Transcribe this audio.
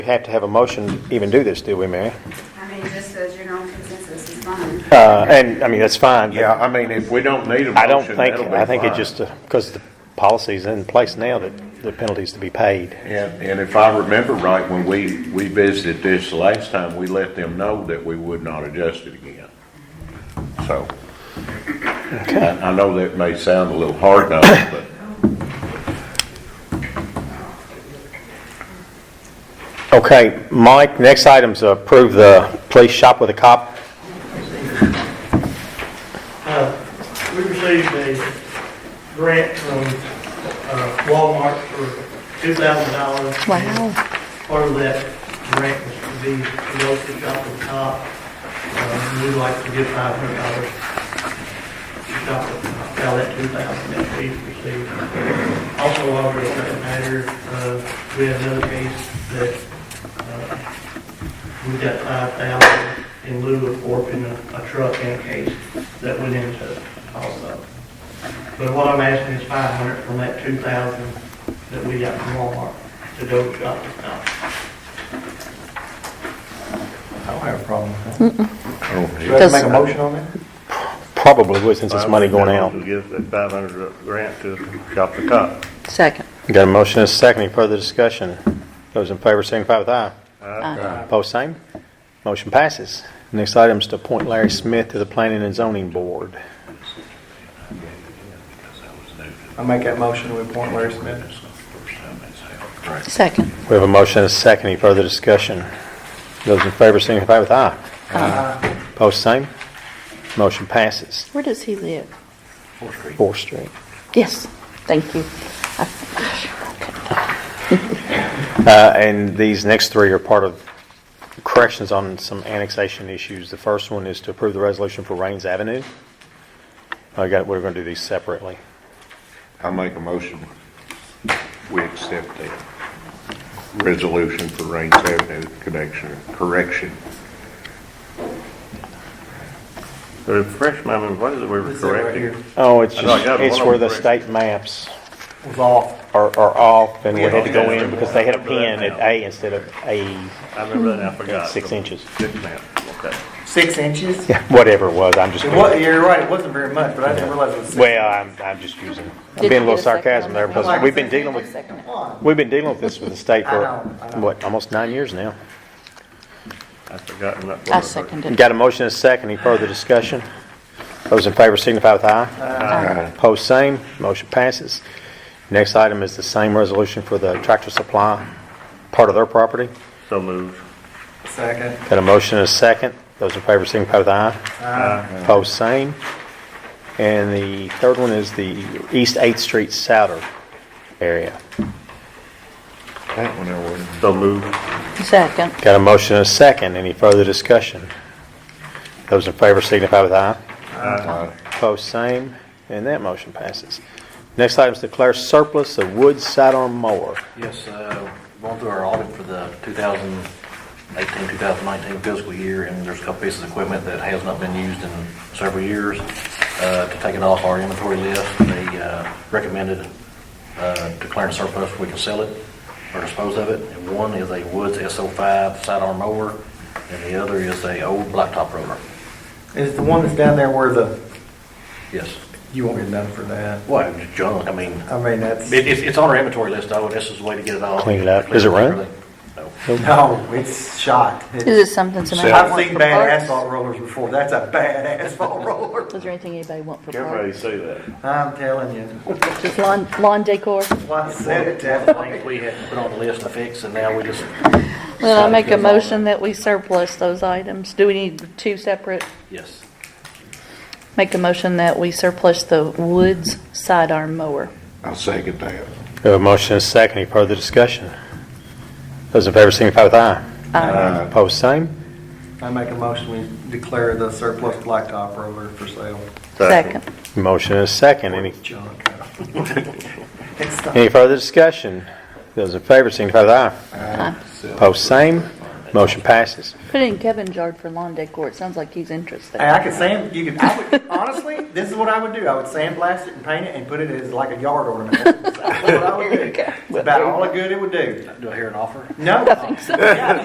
We have to have a motion to even do this, do we, Mary? I mean, just the general consensus is fine. Uh, And, I mean, that's fine. but Yeah, I mean, if we don't need a I don't motion, think, that'll be I think it fine. just, because the policy's in place now that the penalty's to be paid. And, and if I remember right, when we, we visited this the last time, we let them know that we would not adjust it again. So, I, I know that may sound a little hard now, but Okay, Mike, next item's approve the police shop with a cop. We received a grant from uh, Walmart for two thousand dollars. Wow. Part of that grant was to be local shop at the top. Uh, We'd like to give five hundred dollars to shop at the top, out of that two thousand that we received. Also, while we're at that matter, uh, we had another case that uh, we got five thousand in lieu of forfeiting a a truck in a case that went into it also. But what I'm asking is five hundred from that two thousand that we got from Walmart to go shop to shop. I don't have a problem with that. Do I Oh, I have Does- to make a motion on that? Probably would, since it's money going out. To give that five hundred grant to Shop the Cop. Second. Got a motion and a second. Any further discussion? Those in favor signify with aye. Post same. Motion passes. Next item is to appoint Larry Smith to the Planning and Zoning Board. I make that motion, we appoint Larry Smith. Second. We have a motion and a second. Any further discussion? Those in favor signify with aye. Post same. Motion passes. Where does he live? Fourth Street. Yes, thank you. Uh, And these next three are part of corrections on some annexation issues. The first one is to approve the resolution for Rains Avenue. I got, we're going to do these separately. make a motion, we accept the resolution for Rains Avenue connection, correction. Refresh my memory, what is it we were It's right here. correcting? Oh, it's I know, I just, got it's one where of the them correct. state maps Was off. are, are off and we had to go Yeah. in because they had a pin at A instead of A I remember that and I forgot. six inches. Six inches, okay. Six inches? Yeah, Whatever it was, I'm just, It wa, you're right, it wasn't very much, but I didn't realize it was six. well, I'm, I'm just using, I'm being a little sarcasm there because we've been dealing with, we've been dealing with this with the state for, I know, I know. what, almost nine years now. I've forgotten that. I part. seconded. Got a motion and a second. Any further discussion? Those in favor signify with aye. Aye. Post same. Motion passes. Next item is the same resolution for the tractor supply, part of their property. So moved. Second. Got a motion and a second. Those in favor signify with aye. Aye. Post same. And the third one is the East 8th Street Souter area. That one I wouldn't. So moved. Second. Got a motion and a second. Any further discussion? Those in favor signify with aye. Post same, and that motion passes. Next item is declare surplus of wood sidearm mower. Yes, uh, going through our audit for the 2018, 2019 fiscal year, and there's a couple pieces of equipment that has not been used in several years. Uh, To take it off our inventory list, they uh, recommended uh, declaring surplus, we can sell it or dispose of it. And one is a Woods SO5 sidearm mower, and the other is a old blacktop roller. Is the one that's down there where the, Yes. you won't get nothing for that. Well, it's junk, I mean, I mean, that's, it- it's it's on our inventory list, though, and this is the way to get it off. Clean it up. Does it run? No. no, it's shot. Is it something somebody I've wants seen for bad parts? asphalt rollers before, that's a bad asphalt roller. Is there anything anybody want for Everybody parts? say that. I'm telling you. Just lawn, lawn decor? Why I said it that way. things we had to put on the list to fix, and now we just. Then I make a motion that we surplus those items. Do we need two separate? Yes. Make a motion that we surplus the Woods sidearm mower. I'll second that. We have a motion and a second. Any further discussion? Those in favor signify with aye. Aye. Post same, I make a motion, we declare the surplus blacktop roller for sale. Second. motion and a second. Any, Junk. It's not- any further discussion? Those in favor signify with aye. Post same, Motion passes. Put it in Kevin's yard for lawn decor. It sounds like he's interested. Hey, I could sand, you could, I would, honestly, this is what I would do. I would sandblast it and paint it and put it as like a yard ornament. That's what I would do. It's about all the good it would do. Do I hear an offer? No.